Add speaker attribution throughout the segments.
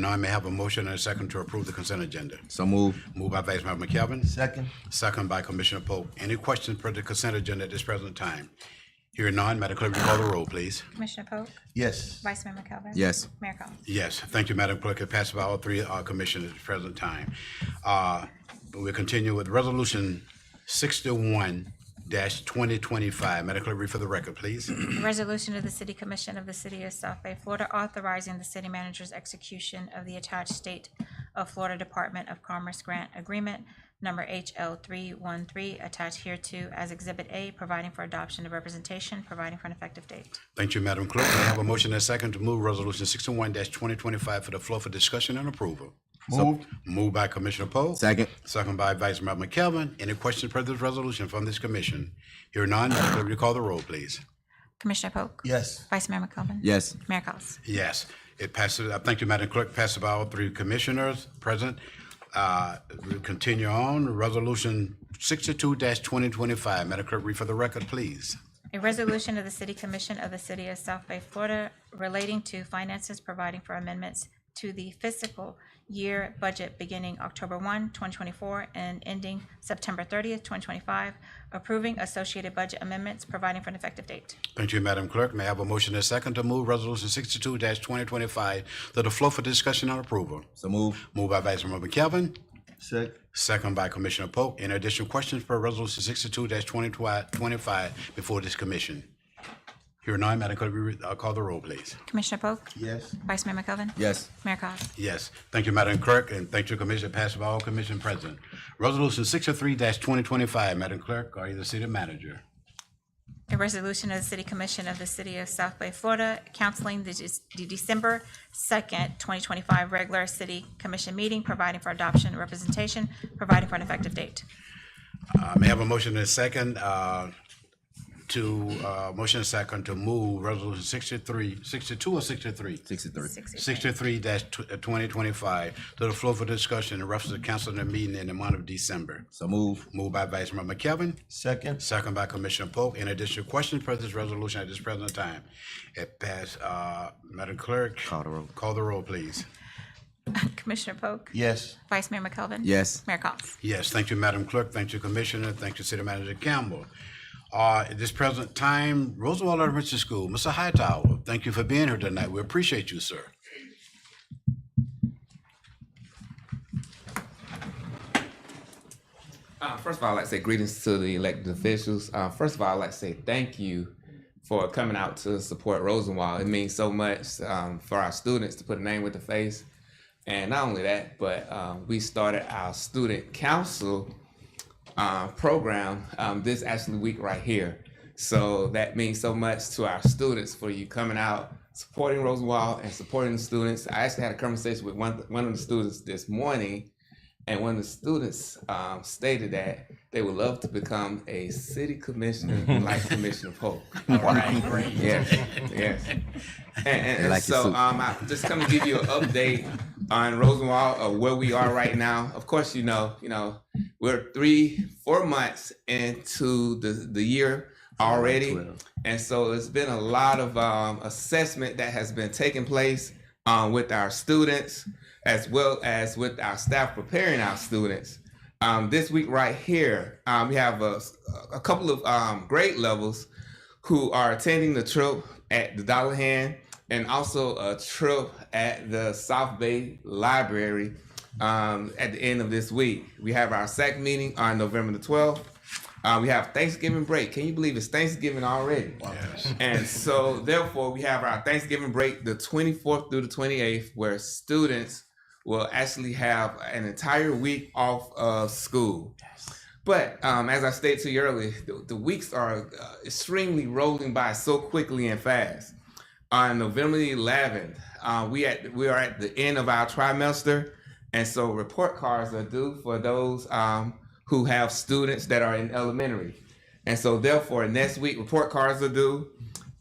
Speaker 1: Now I may have a motion and a second to approve the consent agenda.
Speaker 2: So moved.
Speaker 1: Moved by Vice Mayor McKelvin.
Speaker 3: Second.
Speaker 1: Second by Commissioner Polk. Any questions per the consent agenda at this present time? Hearing none, Madam Clerk, will you call the roll, please.
Speaker 4: Commissioner Polk,
Speaker 3: Yes.
Speaker 4: Vice Mayor McKelvin.
Speaker 2: Yes.
Speaker 4: Mayor Collins.
Speaker 1: Yes, thank you, Madam Clerk. It passed by all three uh, commissioners at the present time. Uh, We'll continue with Resolution sixty-one twenty twenty-five. Madam Clerk, read for the record, please.
Speaker 4: Resolution of the City Commission of the City of South Bay, Florida, authorizing the city manager's execution of the attached State of Florida Department of Commerce Grant Agreement, number HL three one three, attached hereto as Exhibit A, providing for adoption of representation, providing for an effective date.
Speaker 1: Thank you, Madam Clerk. May I have a motion and a second to move Resolution sixty-one twenty twenty-five for the floor for discussion and approval?
Speaker 3: Moved.
Speaker 1: Moved by Commissioner Poe.
Speaker 2: Second.
Speaker 1: Second by Vice Mayor McKelvin. Any questions per this resolution from this commission? Hearing none, Madam Clerk, will you call the roll, please?
Speaker 4: Commissioner Polk.
Speaker 3: Yes.
Speaker 4: Vice Mayor McKelvin.
Speaker 2: Yes.
Speaker 4: Mayor Collins.
Speaker 1: Yes, it passes. I thank you, Madam Clerk. Passes by all three commissioners present. Uh, we continue on. Resolution sixty-two twenty twenty-five. Madam Clerk, read for the record, please.
Speaker 4: A resolution of the City Commission of the City of South Bay, Florida relating to finances providing for amendments to the fiscal year budget beginning October 1, 2024, and ending September thirtieth, twenty twenty-five, approving associated budget amendments, providing for an effective date.
Speaker 1: Thank you, Madam Clerk. May I have a motion and a second to move Resolution sixty-two twenty twenty-five to the floor for discussion and approval?
Speaker 2: So moved.
Speaker 1: Moved by Vice Mayor McKelvin,
Speaker 3: Second.
Speaker 1: second by Commissioner Polk. Any additional questions for Resolution sixty-two twenty twenty-five before this commission? Hearing none, Madam Clerk, we, uh, call the roll, please.
Speaker 4: Commissioner Polk?
Speaker 3: Yes.
Speaker 4: Vice Mayor McKelvin?
Speaker 2: Yes.
Speaker 4: Mayor Collins?
Speaker 1: Yes, thank you, Madam Clerk, and thank you, Commissioner, passed by all commission present. Resolution sixty-three twenty twenty-five, Madam Clerk, are you the city manager?
Speaker 4: A resolution of the City Commission of the City of South Bay, Florida, canceling the Dec- the December second, twenty twenty-five regular city commission meeting, providing for adoption and representation, providing for an effective date.
Speaker 1: Uh, may I have a motion and a second, uh, to, uh, motion and second to move resolution 63, 62 or sixty-three?
Speaker 2: Sixty-three.
Speaker 1: Sixty-three uh, twenty twenty-five to the floor for discussion in reference to canceling the meeting in the month of December.
Speaker 2: So moved.
Speaker 1: Moved by Vice Mayor McKelvin,
Speaker 3: Second.
Speaker 1: Second by Commissioner Polk. In addition, questions for this resolution at this present time? It passed, uh, Madam Clerk.
Speaker 2: Call the roll.
Speaker 1: Call the roll, please.
Speaker 4: Commissioner Polk.
Speaker 3: Yes.
Speaker 4: Vice Mayor McKelvin.
Speaker 2: Yes.
Speaker 4: Mayor Collins.
Speaker 1: Yes, thank you, Madam Clerk. Thank you, Commissioner. Thank you, City Manager Campbell. Uh, at this present time, Roosevelt Elementary School, Mr. Hightower, thank you for being here tonight. We appreciate you, sir.
Speaker 5: Uh, first of all, I'd like to say greetings to the elected officials. Uh, first of all, I'd like to say thank you for coming out to support Rosenwald. It means so much um, for our students to put a name with the face. And not only that, but um, we started our student council uh, program um, this actually week right here. So that means so much to our students for you coming out, supporting Rosenwald and supporting the students. I actually had a conversation with one, one of the students this morning, and one of the students um, stated that they would love to become a city commissioner like Commissioner Polk. Yes, yes. And, and, and
Speaker 2: like your
Speaker 5: so
Speaker 2: suit.
Speaker 5: um, I just come to give you an update on Rosenwald of where we are right now. Of course, you know, you know, we're three, four months into the the year already, and so it's been a lot of um, assessment that has been taking place um, with our students as well as with our staff preparing our students. Um, this week, right here, um, we have a, a couple of um, grade levels who are attending the trip at the Dollar Hand and also a trip at the South Bay Library um, at the end of this week. We have our SAC meeting on November the 12th. Uh, we have Thanksgiving break. Can you believe it's Thanksgiving already?
Speaker 1: Yes.
Speaker 5: And so, therefore, we have our Thanksgiving break, the 24th through the 28th, where students will actually have an entire week off of school. But um, as I stated to you earlier, the, the weeks are uh, extremely rolling by so quickly and fast. On November the 11th, uh, we at we are at the end of our trimester, and so report cards are due for those um, who have students that are in elementary, and so therefore next week report cards are due,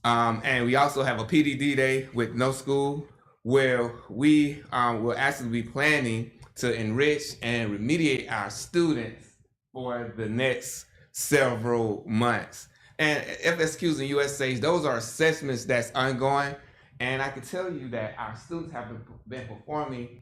Speaker 5: um, and we also have a PDD day with no school where we um, will actually be planning to enrich and remediate our students for the next several months. And FSQs and USAs, those are assessments that's ongoing. And I can tell you that our students have been- been performing